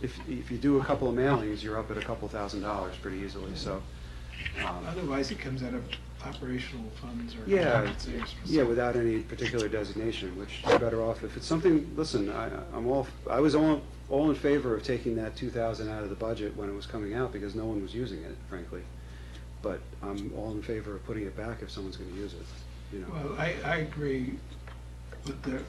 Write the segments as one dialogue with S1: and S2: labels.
S1: if, if you do a couple of mailings, you're up at a couple thousand dollars pretty easily, so. um,
S2: Otherwise, it comes out of operational funds or.
S1: Yeah,
S2: contingency or something.
S1: yeah, without any particular designation, which you're better off if it's something, listen, I, I'm all, I was all, all in favor of taking that two thousand out of the budget when it was coming out, because no one was using it, frankly. But I'm all in favor of putting it back if someone's gonna use it, you know.
S2: Well, I, I agree with the,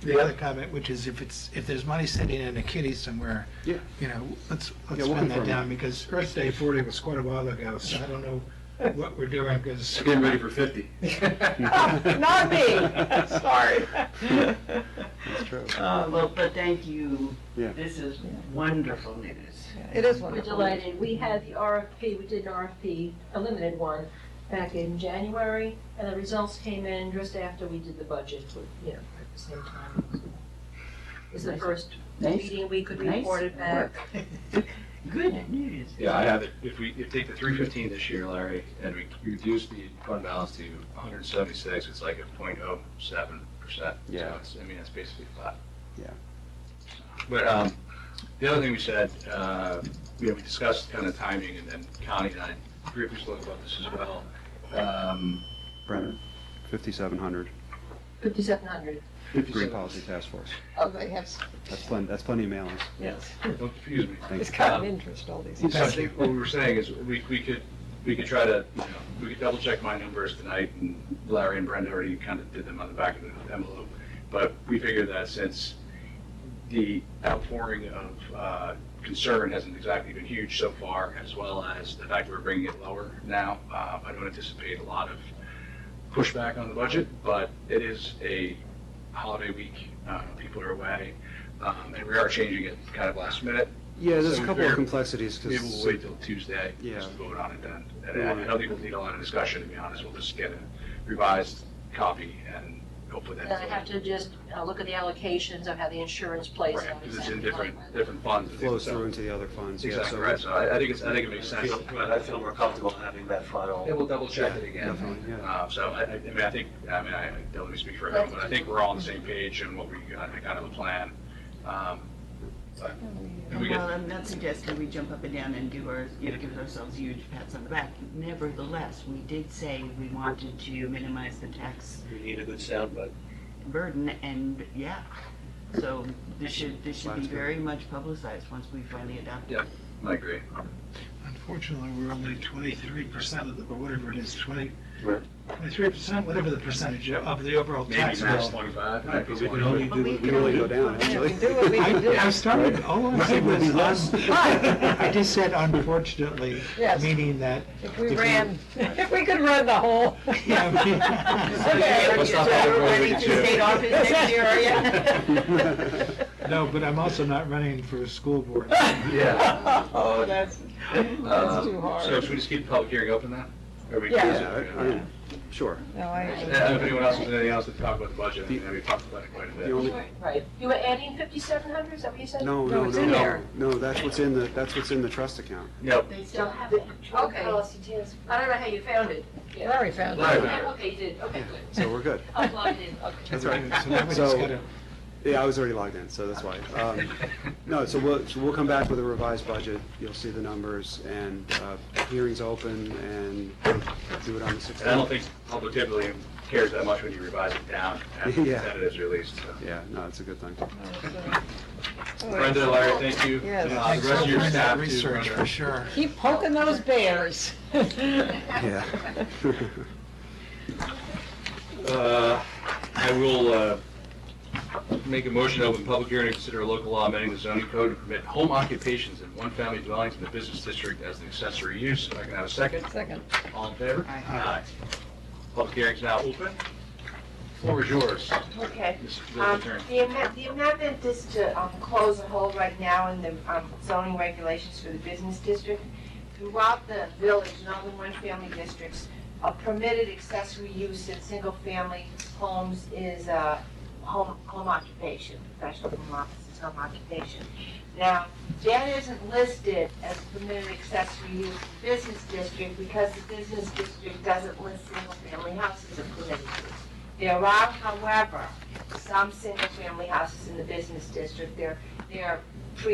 S2: the other comment, which is if it's, if there's money sitting in a kitty somewhere,
S1: Yeah,
S2: you know, let's, let's
S1: Yeah, we'll
S2: spend that
S1: confirm
S2: down,
S1: that.
S2: because Earth Day forty was quite a while ago, so I don't know what we're doing, because.
S3: Getting ready for 50.
S4: Not me, sorry.
S1: that's true.
S5: Uh, Well, but thank you.
S1: Yeah.
S5: This is wonderful news.
S4: It is
S6: We're
S4: wonderful.
S6: delighted. We had the RFP, we did an RFP, a limited one, back in January, and the results came in just after we did the budget, you know, at the same time. It was the first meeting we could
S4: Nice
S6: report it back.
S5: Good news.
S3: Yeah, I have it, if we, if take the 315 this year, Larry, and we reduce the fund balance to 176, it's like a 0.07%. So
S1: Yeah.
S3: it's- I mean, it's basically flat.
S1: Yeah.
S3: But um, the other thing we said, uh, you know, we discussed kind of timing, and then Connie and I briefly spoke about this as well. Um,
S1: Brenner, fifty-seven hundred,
S6: Fifty-seven hundred.
S1: Green Policy Task Force,
S4: Oh, they have, s-
S1: that's plenty, that's plenty of mailings,
S4: yes.
S3: Don't confuse me. Um,
S1: thank
S4: It's
S1: you.
S4: kind of interest, all these.
S3: So I think what we were saying is we, we could, we could try to, you know, we could double check my numbers tonight and Larry and Brenda already kind of did them on the back of the envelope. But we figured that since the outpouring of uh, concern hasn't exactly been huge so far, as well as the fact we're bringing it lower now, uh, I don't anticipate a lot of pushback on the budget, but it is a holiday week. uh, People are away. um, And we are changing it kind of last minute.
S1: Yeah, there's a
S3: So
S1: couple of
S3: fair.
S1: complexities,
S3: Maybe we'll
S1: because
S3: wait till Tuesday,
S1: Yeah.
S3: just vote on it then.
S1: We
S3: And I- I
S1: wanna-
S3: don't think we'll need a lot of discussion, to be honest, we'll just get a revised copy and hopefully
S6: Then I have
S3: that.
S6: to just uh, look at the allocations of how the insurance plays out.
S3: Right, because it's in
S6: exactly.
S3: different, different funds. and
S1: flows
S3: things, so-
S1: through into the other funds, yeah,
S3: Exactly,
S1: so.
S3: right, so I I think it's, I think it makes
S7: I
S3: sense.
S7: feel, but I feel more comfortable having that final.
S3: And we'll double check it again.
S1: Definitely, yeah.
S3: Uh, So I, I I mean, I think, I mean, I don't let me speak for everyone, but I think we're all on the same page and what we, I think, kind of the plan. Um, but- and we get-
S5: Well, I'm not suggesting we jump up and down and give our, you know, give ourselves huge pats on the back. Nevertheless, we did say we wanted to minimize the tax
S7: We need a good soundbite.
S5: burden, and yeah. So this should, this should be
S1: Sounds good.
S5: very much publicized once we finally adopt it.
S3: I agree.
S2: Unfortunately, we're only twenty-three percent of the, or whatever it is, twenty,
S7: Right.
S2: twenty-three percent, whatever the percentage of- of the overall tax bill.
S3: twenty-five.
S7: Right, because we can only
S5: But we
S7: do.
S1: We really go down,
S4: Yeah,
S1: actually.
S4: we do what we
S2: I,
S4: can do.
S2: I started, oh, all I'm saying
S7: Right, we'll be
S2: was,
S7: less.
S2: Um, I just said unfortunately,
S4: Yes.
S2: meaning that.
S4: If we
S2: if
S4: ran, if we could run the whole.
S5: Okay,
S3: Let's not
S5: so
S3: have it
S5: we're
S3: where we
S5: ready to
S3: do it.
S5: state office next year, are ya?
S2: No, but I'm also not running for school board.
S3: Yeah.
S4: Oh, that's, that's too
S3: Uh, So
S4: hard.
S3: should we just keep the public hearing open then? Or we-
S4: Yeah.
S1: Yeah, I- I mean, sure.
S4: No, I,
S3: Uh, If anyone else has anything else to talk about the budget, I mean, we talked about it quite a bit.
S1: The only,
S6: Right. You were adding fifty-seven hundred, is that what you said?
S1: no,
S4: No,
S1: no,
S4: it's in
S1: no,
S4: there.
S1: no, that's what's in the, that's what's in the trust account.
S3: Yep.
S6: They still have it. Okay. I don't know how you found it.
S4: Larry found
S3: Larry
S4: it.
S3: found it.
S6: Okay, you did, okay, good.
S1: So we're good.
S6: I'll log it in, okay.
S1: That's right.
S2: So now we just
S1: So-
S2: gotta-
S1: Yeah, I was already logged in, so that's why. Um, No, so we'll, so we'll come back with a revised budget. You'll see the numbers and uh, hearings open and do it on the
S3: And I don't
S1: 16th.
S3: think public typically cares that much when you revise it down after
S1: Yeah.
S3: the is released. so.
S1: Yeah, no, it's a good thing.
S3: Brenda, Larry, thank you.
S4: Yes.
S3: Uh, The rest of your
S2: Thanks for
S3: staff too.
S2: Research,
S3: Brenda.
S2: for sure.
S4: Keep poking those bears.
S1: Yeah.
S3: Uh, I will uh, make a motion to open public hearing to consider a local law amending the zoning code to permit home occupations in one-family dwellings in the business district as an accessory use. If I can have a second?
S4: Second.
S3: All in favor?
S5: Aye.
S3: Public hearing's now open. Floor is yours.
S8: Okay.
S3: Ms.
S8: Um,
S3: Littleton.
S8: The amendment, the amendment is to um, close a hole right now in the um, zoning regulations for the business district. Throughout the village, and all the one-family districts, a permitted accessory use in single-family homes is uh, home home occupation, professional home office is home occupation. Now, that isn't listed as permitted accessory use in the business district because the business district doesn't list single-family houses as permitted use. There are, however, some single-family houses in the business district. They're, they're pre-